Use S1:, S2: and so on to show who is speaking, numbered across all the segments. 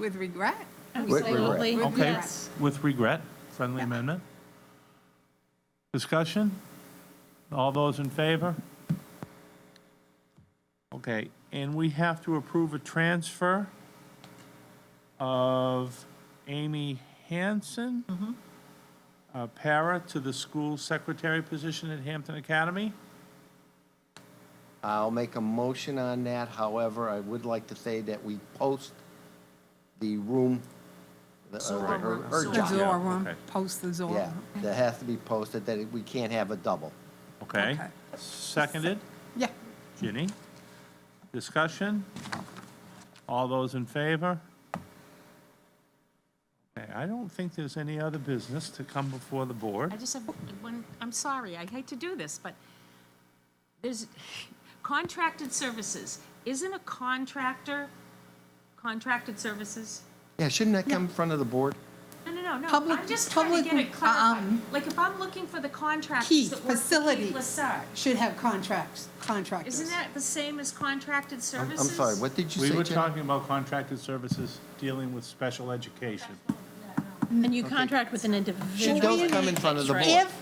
S1: With regret?
S2: With regret.
S3: Absolutely.
S1: With
S4: Okay,
S1: regret.
S4: with regret, friendly amendment. Discussion? All those in favor? Okay, and we have to approve a transfer of Amy Hanson, uh, para, to the school secretary position at Hampton Academy.
S2: I'll make a motion on that, however, I would like to say that we post the room, the- uh,
S1: Zor
S2: her
S1: room.
S2: her
S1: The
S2: job.
S1: Zor room.
S4: okay.
S1: post the Zor
S2: Yeah,
S1: room.
S2: that has to be posted, that it- we can't have a double.
S4: Okay.
S1: Okay.
S4: Seconded,
S1: Yeah.
S4: Ginny. Discussion? All those in favor? Okay, I don't think there's any other business to come before the board.
S3: I just have one, I'm sorry, I hate to do this, but there's contracted services. Isn't a contractor contracted services?
S2: Yeah, shouldn't that come in front of the board?
S3: No, no, no, no.
S1: Public-
S3: I'm just trying to get
S1: public,
S3: it clarified.
S1: um,
S3: Like if I'm looking for the contractors
S5: Key,
S3: that work for Key
S5: facilities.
S3: Lasar,
S5: should have contracts, contractors.
S3: isn't that the same as contracted
S2: I'm
S3: services?
S2: I'm sorry, what did you
S4: We
S2: say,
S4: were
S2: Jen?
S4: talking about contracted services dealing with special education.
S6: And you contract with an individual.
S2: Should those come in front of the board?
S1: If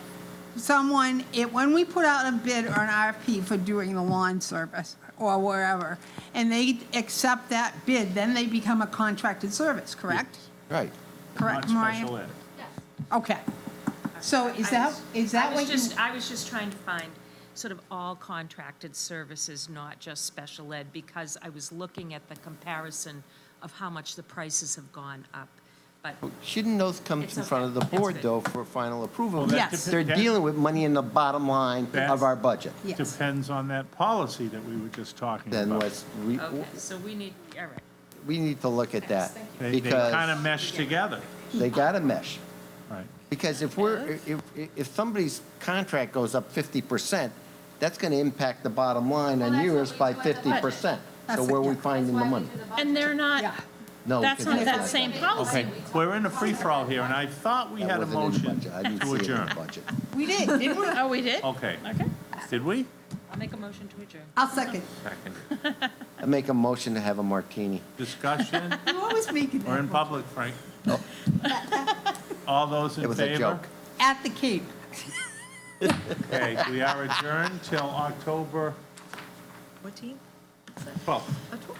S1: someone, if, when we put out a bid or an RFP for doing the lawn service or wherever, and they accept that bid, then they become a contracted service, correct?
S2: Right.
S1: Correct,
S4: Not
S1: Mariah?
S4: special ed.
S1: Okay. So is
S3: I
S1: that,
S3: was-
S1: is
S3: I
S1: that
S3: was
S1: what you?
S3: just- I was just trying to find sort of all contracted services, not just special ed, because I was looking at the comparison of how much the prices have gone up. But
S2: Shouldn't those come in
S3: It's
S2: front of the
S3: okay. It's
S2: board,
S3: good.
S2: though, for final approval?
S4: Well, that
S1: Yes.
S2: They're
S4: depen- that
S2: dealing with money in the bottom line
S4: That's-
S2: of our budget.
S1: Yes.
S4: Depends on that policy that we were just talking
S2: Then
S4: about.
S2: let's, we,
S3: Okay, so we need, all right.
S2: we need to look at that,
S4: They kind of
S2: because
S4: mesh together,
S2: they got to mesh.
S4: right?
S2: Because if we're, if, if somebody's contract goes up fifty percent, that's gonna impact the bottom line on yours by fifty percent. So
S1: That's-
S2: where are we
S1: yeah.
S2: finding the money?
S6: And they're not,
S1: Yeah.
S2: No,
S6: that's
S2: because
S6: not
S2: that's
S6: that same policy.
S4: Okay, we're in a free-for-all here, and I thought we
S2: that
S4: had a
S2: wasn't in the
S4: motion
S2: budget. I didn't
S4: to
S2: see it in the
S4: adjourn.
S2: budget.
S1: We did, didn't we?
S6: Oh, we did?
S4: Okay,
S6: Okay.
S4: did we?
S3: I'll make a motion to adjourn.
S1: I'll second.
S4: Second.
S2: I make a motion to have a martini.
S4: Discussion?
S1: You always making
S4: We're in
S1: that
S4: public, Frank. All those
S2: It
S4: in
S2: was a
S4: favor?
S2: joke.
S1: at the Cape.
S4: Okay, we are adjourned till October
S3: What team?
S4: 12th.